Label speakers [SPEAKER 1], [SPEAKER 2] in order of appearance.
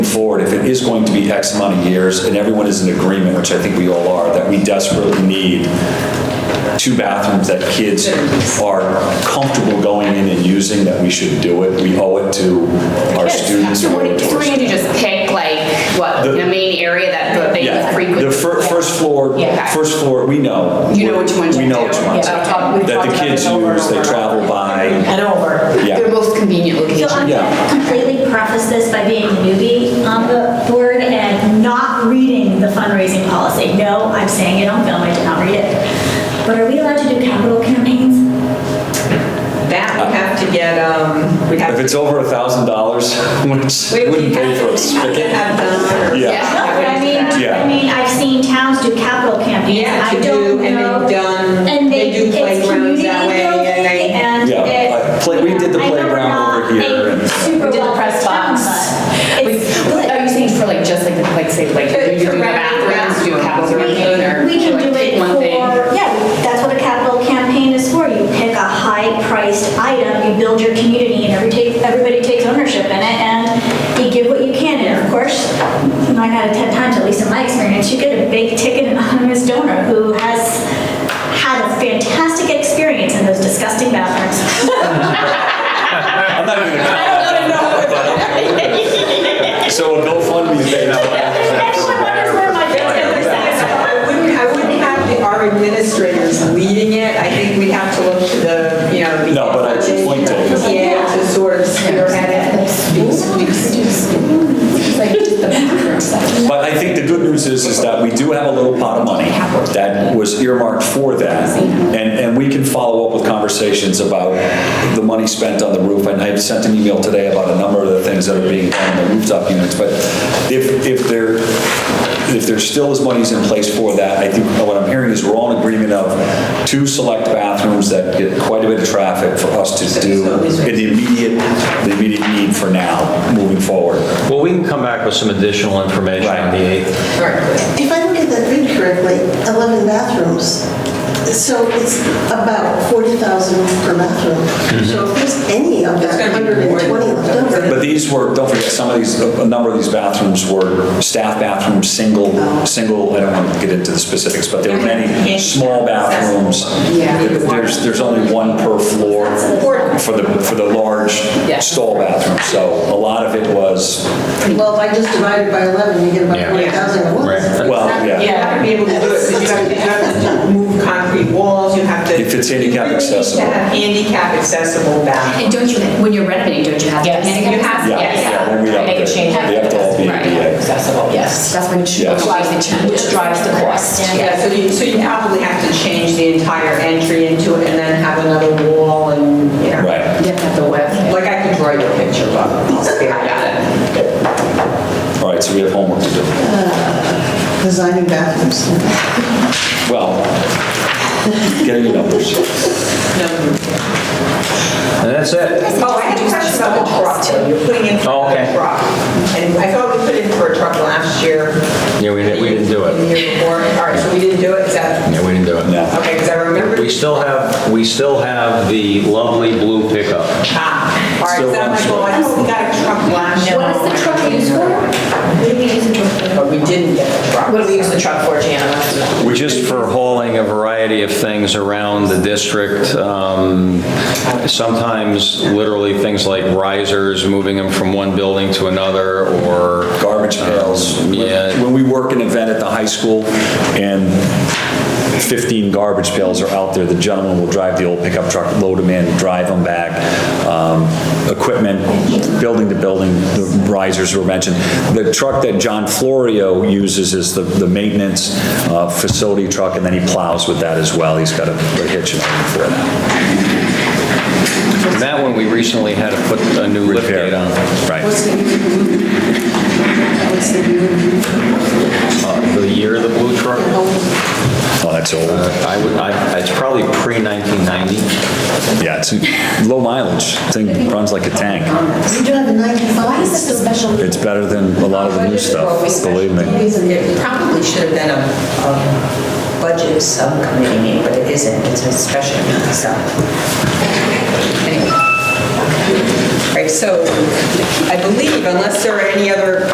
[SPEAKER 1] forward, if it is going to be X amount of years, and everyone is in agreement, which I think we all are, that we desperately need two bathrooms that kids are comfortable going in and using, that we should do it. We owe it to our students.
[SPEAKER 2] So
[SPEAKER 1] we owe
[SPEAKER 2] what
[SPEAKER 1] it to
[SPEAKER 2] so
[SPEAKER 1] our
[SPEAKER 2] we're going to just pick like, what,
[SPEAKER 1] The-
[SPEAKER 2] the main area that they
[SPEAKER 1] Yeah,
[SPEAKER 2] frequent?
[SPEAKER 1] the fir- first floor,
[SPEAKER 2] Yeah.
[SPEAKER 1] first floor, we know.
[SPEAKER 2] You know which ones
[SPEAKER 1] We
[SPEAKER 2] you
[SPEAKER 1] know
[SPEAKER 2] do.
[SPEAKER 1] which ones.
[SPEAKER 2] Yeah, I've talked- we've
[SPEAKER 1] That
[SPEAKER 2] talked
[SPEAKER 1] the
[SPEAKER 2] about
[SPEAKER 1] kids
[SPEAKER 2] this over and
[SPEAKER 1] use, they
[SPEAKER 2] over.
[SPEAKER 1] travel by,
[SPEAKER 2] And over.
[SPEAKER 1] Yeah.
[SPEAKER 2] They're both convenient
[SPEAKER 3] So
[SPEAKER 2] locations.
[SPEAKER 3] I'm
[SPEAKER 1] Yeah.
[SPEAKER 3] gonna completely preface this by being a newbie on the board and not reading the fundraising policy. No, I'm saying it on film, I did not read it. But are we allowed to do capital campaigns?
[SPEAKER 4] That we have to get, um, we have
[SPEAKER 1] if
[SPEAKER 4] to.
[SPEAKER 1] it's over a thousand dollars, which
[SPEAKER 4] we- we
[SPEAKER 1] wouldn't pay
[SPEAKER 4] have to-
[SPEAKER 1] for a
[SPEAKER 4] we
[SPEAKER 1] spigot.
[SPEAKER 4] have done or-
[SPEAKER 1] Yeah.
[SPEAKER 3] No, but I mean,
[SPEAKER 1] Yeah.
[SPEAKER 3] I mean, I've seen towns do capital campaigns.
[SPEAKER 4] Yeah,
[SPEAKER 3] I
[SPEAKER 4] to
[SPEAKER 3] don't
[SPEAKER 4] do, and
[SPEAKER 3] know.
[SPEAKER 4] they've done,
[SPEAKER 3] And
[SPEAKER 4] they do
[SPEAKER 3] it's
[SPEAKER 4] playgrounds that way,
[SPEAKER 3] community
[SPEAKER 4] and
[SPEAKER 3] building
[SPEAKER 4] they.
[SPEAKER 3] and
[SPEAKER 1] Yeah,
[SPEAKER 3] it's-
[SPEAKER 1] I play- we did the
[SPEAKER 3] I know we're
[SPEAKER 1] playground
[SPEAKER 3] not
[SPEAKER 1] over here
[SPEAKER 3] a
[SPEAKER 1] and-
[SPEAKER 3] super
[SPEAKER 2] We did the
[SPEAKER 3] well
[SPEAKER 2] press
[SPEAKER 3] town,
[SPEAKER 2] box.
[SPEAKER 3] but It's
[SPEAKER 2] Like,
[SPEAKER 3] good.
[SPEAKER 4] oh,
[SPEAKER 2] Are you saying for like, just like, the like, say, like,
[SPEAKER 4] For-
[SPEAKER 2] you're doing
[SPEAKER 4] for
[SPEAKER 2] bathrooms,
[SPEAKER 4] wrapping
[SPEAKER 2] do a capital
[SPEAKER 4] around.
[SPEAKER 2] campaign, or?
[SPEAKER 3] We can
[SPEAKER 2] like,
[SPEAKER 3] do
[SPEAKER 2] pick
[SPEAKER 3] it
[SPEAKER 2] one
[SPEAKER 3] for,
[SPEAKER 2] thing?
[SPEAKER 3] yeah, that's what a capital campaign is for. You pick a high-priced item, you build your community, and every take, everybody takes ownership in it, and you give what you can. And of course, nine out of 10 times, at least in my experience, you get a big-ticket anonymous donor who has had a fantastic experience in those disgusting bathrooms.
[SPEAKER 1] I'm not even So a GoFundMe page.
[SPEAKER 3] Everyone wonders where my bills get their satisfied.
[SPEAKER 4] I wouldn't, I wouldn't have the- our administrators leading it, I think we'd have to look to the, you know. the-
[SPEAKER 1] No, but I just point taken.
[SPEAKER 4] Yeah, to sort of spearhead it.
[SPEAKER 1] But I think the good news is, is that we do have a little pot of money that was earmarked for that. And, and we can follow up with conversations about the money spent on the roof. And I sent an email today about a number of the things that are being done on the rooftop units. But if, if there, if there still is monies in place for that, I think what I'm hearing is we're all in agreement of two select bathrooms that get quite a bit of traffic for us to do in the immediate, the immediate need for now, moving forward.
[SPEAKER 5] Well, we can come back with some additional information on the 8th.
[SPEAKER 6] If I look at that read correctly, 11 bathrooms, so it's about 40,000 per
[SPEAKER 5] Mm-hmm.
[SPEAKER 6] bathroom. So if there's any of
[SPEAKER 4] It's
[SPEAKER 6] that
[SPEAKER 4] gonna be more than
[SPEAKER 6] 120 left over,
[SPEAKER 1] But these were, don't forget, some of these, a number of these bathrooms were staff bathrooms, single, single, I don't want to get into the specifics, but there were many small bathrooms. There's, there's only one per floor for the, for the large
[SPEAKER 2] Yeah.
[SPEAKER 1] stall bathroom. So a lot of it was,
[SPEAKER 6] well, if I just divide it by 11, you get about
[SPEAKER 5] Yeah.
[SPEAKER 6] 40,000 at
[SPEAKER 5] Right.
[SPEAKER 6] once.
[SPEAKER 1] well, yeah.
[SPEAKER 4] You have to be able to do it, because you have to, you have to move concrete walls, you have to.
[SPEAKER 1] If it's handicap
[SPEAKER 4] You really need to
[SPEAKER 1] accessible.
[SPEAKER 4] have handicap accessible bathrooms.
[SPEAKER 2] And don't you, when you're renovating, don't you have?
[SPEAKER 7] Yes.
[SPEAKER 2] You have,
[SPEAKER 1] Yeah, yeah, when we
[SPEAKER 2] yeah.
[SPEAKER 1] upgrade,
[SPEAKER 7] change.
[SPEAKER 1] they have to all be
[SPEAKER 2] Right.
[SPEAKER 1] ADA.
[SPEAKER 7] accessible, yes.
[SPEAKER 2] That's when you should.
[SPEAKER 1] Yeah.
[SPEAKER 2] that's why you change.
[SPEAKER 7] Which drives the cost.
[SPEAKER 4] Yeah, so you, so you probably have to change the entire entry into it and then have another wall and, you know.
[SPEAKER 1] Right,
[SPEAKER 2] You have to have the web.
[SPEAKER 4] Like I could draw your picture, but I'll spare you.
[SPEAKER 1] all right, so we have homework to do.
[SPEAKER 6] Designing bathrooms.
[SPEAKER 1] Well, getting your numbers.
[SPEAKER 5] And that's it.
[SPEAKER 4] Oh, I had a question about the truck, though. you're putting in
[SPEAKER 5] Oh,
[SPEAKER 4] for
[SPEAKER 5] okay.
[SPEAKER 4] a truck. And I thought we put in for a truck last year.
[SPEAKER 5] Yeah, we didn't, we didn't do
[SPEAKER 4] The
[SPEAKER 5] it.
[SPEAKER 4] year before, all right, so we didn't do it, is that,
[SPEAKER 5] Yeah, we didn't do it.
[SPEAKER 1] No.
[SPEAKER 4] okay, because I remember.
[SPEAKER 5] We still have, we still have the lovely blue pickup.
[SPEAKER 4] Ah, All right,
[SPEAKER 1] Still
[SPEAKER 4] so I'm like,
[SPEAKER 1] runs.
[SPEAKER 4] well, I thought we got a truck last year.
[SPEAKER 2] What is the truck used for?
[SPEAKER 4] But we didn't get a truck.
[SPEAKER 7] What do we use the truck for, Gianna?
[SPEAKER 5] Which is for hauling a variety of things around the district. um, Sometimes literally things like risers, moving them from one building to another, or.
[SPEAKER 1] garbage pails.
[SPEAKER 5] Uh, Yeah.
[SPEAKER 1] When we work an event at the high school and 15 garbage pails are out there, the gentleman will drive the old pickup truck, load them in, drive them back. Um, Equipment, building to building, the risers were mentioned. The truck that John Florio uses is the, the maintenance uh, facility truck, and then he plows with that as well. He's got a a hitch and everything for that.
[SPEAKER 5] That one, we recently had to put a new lift
[SPEAKER 1] Repair.
[SPEAKER 5] gate on.
[SPEAKER 1] Right.
[SPEAKER 5] Uh, The year of the blue truck? Uh,
[SPEAKER 1] Oh, that's old.
[SPEAKER 5] I would, I, it's probably pre-1990.
[SPEAKER 1] Yeah, it's a low mileage. Thing runs like a tank.
[SPEAKER 6] We do have a 95.
[SPEAKER 7] a special?
[SPEAKER 1] It's better than a lot of the new stuff, believe me.
[SPEAKER 4] It probably should have been a, a budget subcommittee meeting, but it isn't, it's a special meeting, so. Anyway. All right, so I believe unless there are any other